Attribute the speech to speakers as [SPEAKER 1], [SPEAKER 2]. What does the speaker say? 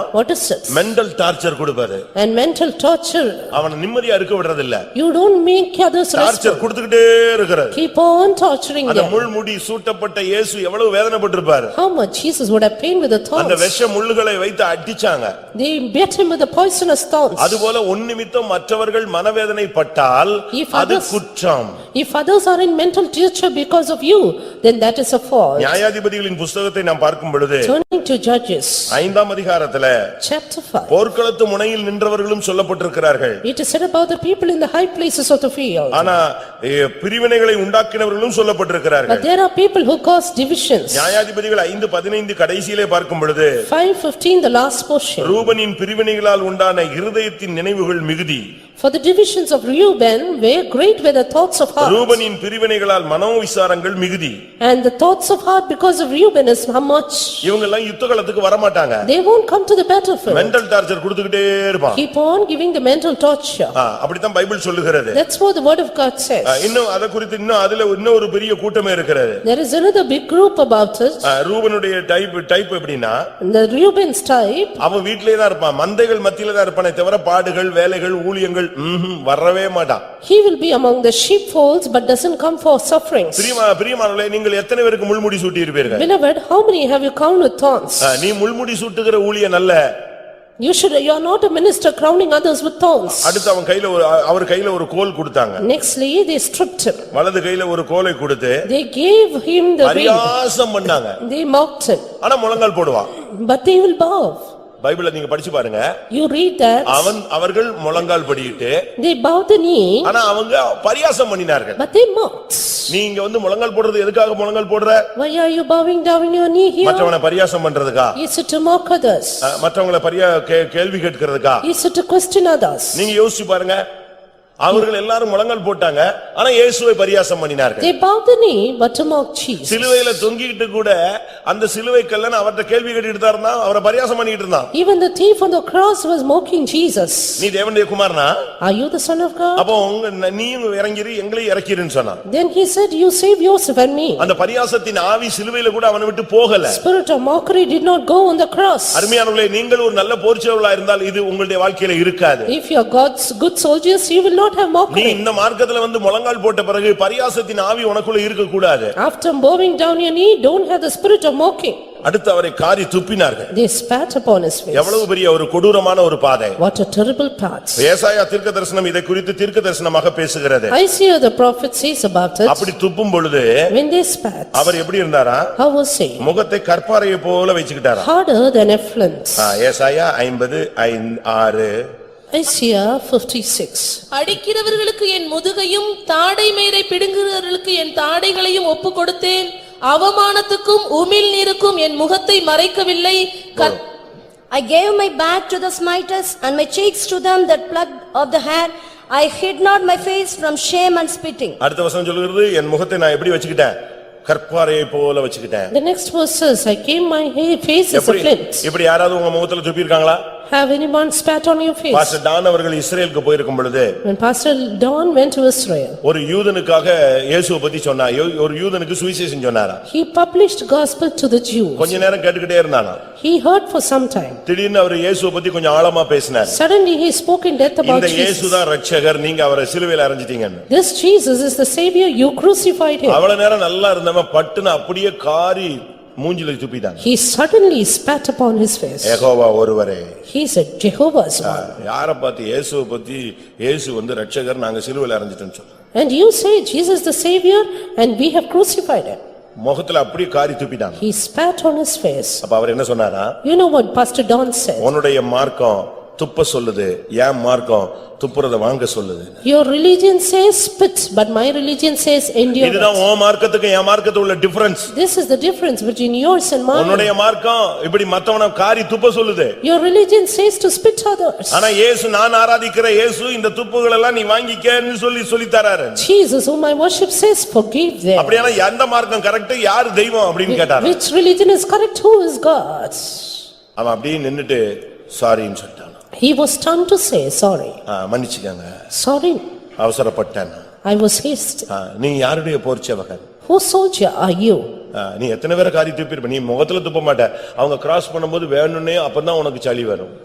[SPEAKER 1] What is it?
[SPEAKER 2] Mental torture கொடுப்பாரு
[SPEAKER 1] And mental torture,
[SPEAKER 2] அவனை நிம்மதியா இருக்க விடுறது இல்ல
[SPEAKER 1] you don't make others rest.
[SPEAKER 2] Torture கொடுத்துக்கிட்டே இருக்கிறாரு
[SPEAKER 1] Keep on torturing
[SPEAKER 2] அந்த
[SPEAKER 1] them.
[SPEAKER 2] முள் முடி சூட்டப்பட்ட இயேசு எவ்வளவு வேதனைப்பட்டிருப்பாரு
[SPEAKER 1] How much Jesus would have pain with the
[SPEAKER 2] அந்த
[SPEAKER 1] thorns.
[SPEAKER 2] விஷ முள்ளுகளை வைத்து அடிச்சாங்க
[SPEAKER 1] They beat him with the poisonous thorns.
[SPEAKER 2] அதுபோல உன் நிமித்தம் மற்றவர்கள் மனவேதனை பட்டால்
[SPEAKER 1] If
[SPEAKER 2] அது
[SPEAKER 1] others-
[SPEAKER 2] குற்றம்
[SPEAKER 1] If others are in mental torture because of you, then that is a fault.
[SPEAKER 2] நியாயாதிபதிகளின் புஸ்தகத்தை நாம் பார்க்கும் பொழுது
[SPEAKER 1] Turning to Judges,
[SPEAKER 2] ஐந்தாம் அதிகாரத்துல
[SPEAKER 1] chapter 5.
[SPEAKER 2] போர்க்களத்து முனையில் நின்றவர்களும் சொல்லப்பட்டிருக்கிறார்கள்
[SPEAKER 1] It is said about the people in the high places of the field.
[SPEAKER 2] ஆனா எ, பிரிவினைகளை உண்டாக்கினவர்களும்
[SPEAKER 1] But
[SPEAKER 2] சொல்லப்பட்டிருக்கிறார்கள்
[SPEAKER 1] there are people who cause divisions.
[SPEAKER 2] நியாயாதிபதிகள் ஐந்து பதினைந்து கடைசியிலே பார்க்கும் பொழுது
[SPEAKER 1] 5:15, the last portion.
[SPEAKER 2] ரூபனின் பிரிவினைகளால் உண்டான இருதயத்தின் நினைவுகள் மிகுதி
[SPEAKER 1] For the divisions of Reuben were great were the thoughts of heart.
[SPEAKER 2] ரூபனின் பிரிவினைகளால் மனோ விசாரங்கள் மிகுதி
[SPEAKER 1] And the thoughts of heart because of Reuben is how much?
[SPEAKER 2] இவங்க எல்லாம் யுத்த காலத்துக்கு வரமாட்டாங்க
[SPEAKER 1] They won't come to the battlefield.
[SPEAKER 2] Mental torture கொடுத்துக்கிட்டே இருப்பான்
[SPEAKER 1] Keep on giving the mental torture.
[SPEAKER 2] ஆ, அப்படித்தான் Bible சொல்லுகிறது
[SPEAKER 1] That's what the word of God
[SPEAKER 2] ah,
[SPEAKER 1] says.
[SPEAKER 2] இன்னும் அத குறித்து இன்னும் அதுல இன்னும் ஒரு பெரிய கூட்டமே இருக்கிறது
[SPEAKER 1] There is another big group about it.
[SPEAKER 2] ஆ, ரூபனுடைய டைப் டைப் எப்படின்னா
[SPEAKER 1] The Reuben's type,
[SPEAKER 2] அவன் வீட்டிலே தான் இருப்பான் மந்தைகள் மத்தியில தான் இருப்பானே தவிர பாடுகள் வேலைகள் ஊழியங்கள் ம்ஹும், வரவே மாட்டான்
[SPEAKER 1] he will be among the sheepfolds but doesn't come for sufferings.
[SPEAKER 2] பிரியமா பிரியமானவர்களே நீங்கள் எத்தனை பேருக்கு முள்முடி சூட்டி இருப்பீர்கள்
[SPEAKER 1] Beloved, how many have you crowned with thorns?
[SPEAKER 2] நீ முள்முடி சூட்டுகிற ஊழியன் அல்ல
[SPEAKER 1] You should, you are not a minister crowning others with thorns.
[SPEAKER 2] அடுத்து அவன் கையில ஒரு அவர் கையில ஒரு கோல் கொடுத்தாங்க
[SPEAKER 1] Nextly, they stripped him.
[SPEAKER 2] வலது கையில ஒரு கோலை கொடுத்து
[SPEAKER 1] They gave him the ring.
[SPEAKER 2] பரியாசம் பண்ணாங்க
[SPEAKER 1] They mocked him,
[SPEAKER 2] ஆனா முழங்கால் போடுவான்
[SPEAKER 1] but they will bow.
[SPEAKER 2] பைபிள நீங்க படிச்சு பாருங்க
[SPEAKER 1] You read that,
[SPEAKER 2] அவன் அவர்கள் முழங்கால் படியிட்டு
[SPEAKER 1] they bowed the knee,
[SPEAKER 2] ஆனா அவங்க பரியாசம் பண்ணினார்கள்
[SPEAKER 1] but they mocked.
[SPEAKER 2] நீங்க வந்து முழங்கால் போடுறது எதுக்காக முழங்கால் போடுற
[SPEAKER 1] Why are you bowing down on your knee here?
[SPEAKER 2] மற்றவனை பரியாசம் பண்றதுக்கா
[SPEAKER 1] Is it to mock others?
[SPEAKER 2] அஹ், மற்றவங்களை பரியா கே- கேள்வி கேட்கிறதுக்கா
[SPEAKER 1] Is it to question others?
[SPEAKER 2] நீங்க யோசிச்சு பாருங்க அவர்கள் எல்லாரும் முழங்கால் போட்டாங்க ஆனா இயேசுவை பரியாசம் பண்ணினார்கள்
[SPEAKER 1] They bowed the knee but to mock Jesus.
[SPEAKER 2] சிலுவையில தொங்கிக்கிட்டு கூட அந்த சிலுவை கல்லன் அவர்ட்ட கேள்வி கேட்டுட்டு தான் இருந்தான் அவரை பரியாசம் பண்ணிட்டு இருந்தான்
[SPEAKER 1] Even the thief on the cross was mocking Jesus.
[SPEAKER 2] நீ தேவனுடைய குமாரனா
[SPEAKER 1] Are you the son of God?
[SPEAKER 2] அப்போ உங்க நீயும் இறங்கிரு எங்களையும் இறக்கிருன்னு சொன்னான்
[SPEAKER 1] Then he said, "You save Joseph and me."
[SPEAKER 2] அந்த பரியாசத்தின் ஆவி சிலுவையில கூட அவனை விட்டு போகல
[SPEAKER 1] Spirit of mockery did not go on the cross.
[SPEAKER 2] அருமையானவர்களே நீங்கள் ஒரு நல்ல போர்ச்சவர்களா இருந்தால் இது உங்களுடைய வாழ்க்கையில இருக்காது
[SPEAKER 1] If you are God's good soldiers, you will not have
[SPEAKER 2] நீ
[SPEAKER 1] mockery.
[SPEAKER 2] இந்த மார்க்கத்துல வந்து முழங்கால் போட்ட பிறகு பரியாசத்தின் ஆவி உனக்குள்ள இருக்க கூடாது
[SPEAKER 1] After bowing down your knee, don't have the spirit of mocking.
[SPEAKER 2] அடுத்து அவரை காரி துப்பினார்கள்
[SPEAKER 1] They spat upon his face.
[SPEAKER 2] எவ்வளவு பெரிய ஒரு கொடூரமான ஒரு பாதை
[SPEAKER 1] What a terrible path.
[SPEAKER 2] ஏசாயா தீர்க்க தரிசனம் இதை குறித்து தீர்க்க தரிசனமாக பேசுகிறது
[SPEAKER 1] Isaiah the prophet says about it,
[SPEAKER 2] அப்படி துப்பும் பொழுது
[SPEAKER 1] when they spat,
[SPEAKER 2] அவர் எப்படி இருந்தாரா
[SPEAKER 1] how was he?
[SPEAKER 2] முகத்தை கற்பாரையை போல வச்சுக்கிட்டாரா
[SPEAKER 1] Harder than effluent.
[SPEAKER 2] ஆ, ஏசாயா ஐம்பது ஐந்து ஆறு
[SPEAKER 1] Isaiah fifty-six.
[SPEAKER 3] அடிக்கிறவர்களுக்கு என் முதுகையும் தாடை மேரை பிடுங்குகிறவர்களுக்கு என் தாடைகளையும் ஒப்புக் கொடுத்தேன் அவமானத்துக்கும் உமிழ் நீருக்கும் என் முகத்தை மறைக்கவில்லை கத்-
[SPEAKER 4] I gave my back to the smiters and my cheeks to them that plucked of the hair. I hid not my face from shame and spitting.
[SPEAKER 2] அடுத்த வசனம் சொல்லுகிறது என் முகத்தை நான் எப்படி வச்சுக்கிட்டேன் கற்பாரையை போல வச்சுக்கிட்டேன்
[SPEAKER 1] The next verse says, "I came my hair- face as a
[SPEAKER 2] எப்படி
[SPEAKER 1] flint."
[SPEAKER 2] இப்படி யாராவது உங்க முகத்துல துப்பியிருக்காங்களா
[SPEAKER 1] Have anyone spat on your face?
[SPEAKER 2] Pastor Don அவர்கள் இஸ்ரேலுக்கு போயிருக்கும் பொழுது
[SPEAKER 1] When Pastor Don went to Israel,
[SPEAKER 2] ஒரு யூதனுக்காக இயேசுவை பத்தி சொன்னா யோ- ஒரு யூதனுக்கு சுவிசேஷம் சொன்னாரா
[SPEAKER 1] he published gospel to the Jews.
[SPEAKER 2] கொஞ்ச நேரம் கேட்டுக்கிட்டே இருந்தானா
[SPEAKER 1] He heard for some time.
[SPEAKER 2] திடீர்னு அவர் இயேசுவை பத்தி கொஞ்சம் ஆழமா பேசினார்
[SPEAKER 1] Suddenly he spoke in depth about
[SPEAKER 2] இந்த
[SPEAKER 1] Jesus.
[SPEAKER 2] இயேசுதான் ரட்சகர் நீங்க அவரை சிலுவையில அரைஞ்சிட்டீங்கன்னு
[SPEAKER 1] This Jesus is the savior, you crucified him.
[SPEAKER 2] அவ்வளவு நேரம் நல்லா இருந்தவன் பட்டுன்னு அப்படியே காரி மூஞ்சில துப்பிட்டான்
[SPEAKER 1] He suddenly spat upon his face.
[SPEAKER 2] Jehovah ஒருவரே
[SPEAKER 1] He said, "Jehovah's one."
[SPEAKER 2] யார பார்த்து இயேசுவை பத்தி இயேசு வந்து ரட்சகர் நாங்க சிலுவையில அரைஞ்சிட்டோம்னு சொன்னான்
[SPEAKER 1] And you say, "Jesus the savior and we have crucified him."
[SPEAKER 2] முகத்துல அப்படியே காரி துப்பிட்டான்
[SPEAKER 1] He spat on his face.
[SPEAKER 2] அப்ப அவர் என்ன சொன்னாரா
[SPEAKER 1] You know what Pastor Don said?
[SPEAKER 2] உன்னுடைய மார்க்கம் துப்ப சொல்லுது என் மார்க்கம் துப்புறத வாங்க சொல்லுது
[SPEAKER 1] Your religion says spit, but my religion says endure.
[SPEAKER 2] இதுதான் உன் மார்க்கத்துக்கு என் மார்க்கத்துக்கு உள்ள difference
[SPEAKER 1] This is the difference between yours and mine.
[SPEAKER 2] உன்னுடைய மார்க்கம் இப்படி மத்தவன காரி துப்ப சொல்லுது
[SPEAKER 1] Your religion says to spit others.
[SPEAKER 2] ஆனா இயேசு நான் ஆராதிக்கிற இயேசு இந்த துப்புகள் எல்லாம் நீ வாங்கிக்கன்னு சொல்லி சொல்லித் தராரு
[SPEAKER 1] Jesus whom I worship says forgive them.
[SPEAKER 2] அப்படியானா எந்த மார்க்கம் கரெக்ட் யார் தெய்வம் அப்படின்னு கேட்டாரு
[SPEAKER 1] Which religion is correct? Who is God?
[SPEAKER 2] அவன் அப்படியே நின்னுட்டு சாரின்னு சொல்லிட்டான்
[SPEAKER 1] He was stunned to say sorry.
[SPEAKER 2] Ah, மன்னிச்சுக்கங்க
[SPEAKER 1] Sorry,
[SPEAKER 2] அவசரப்பட்டேன்
[SPEAKER 1] I was hasty.
[SPEAKER 2] ஆ, நீ யாருடைய போர்ச்சவகன்
[SPEAKER 1] Whose soldier are you?
[SPEAKER 2] ஆ, நீ எத்தனை பேரை காரி துப்பிருப்ப நீ முகத்துல துப்ப மாட்ட அவங்க கிராஸ் பண்ணும்போது வேணும்னே அப்பதான் உனக்கு சளி வரும்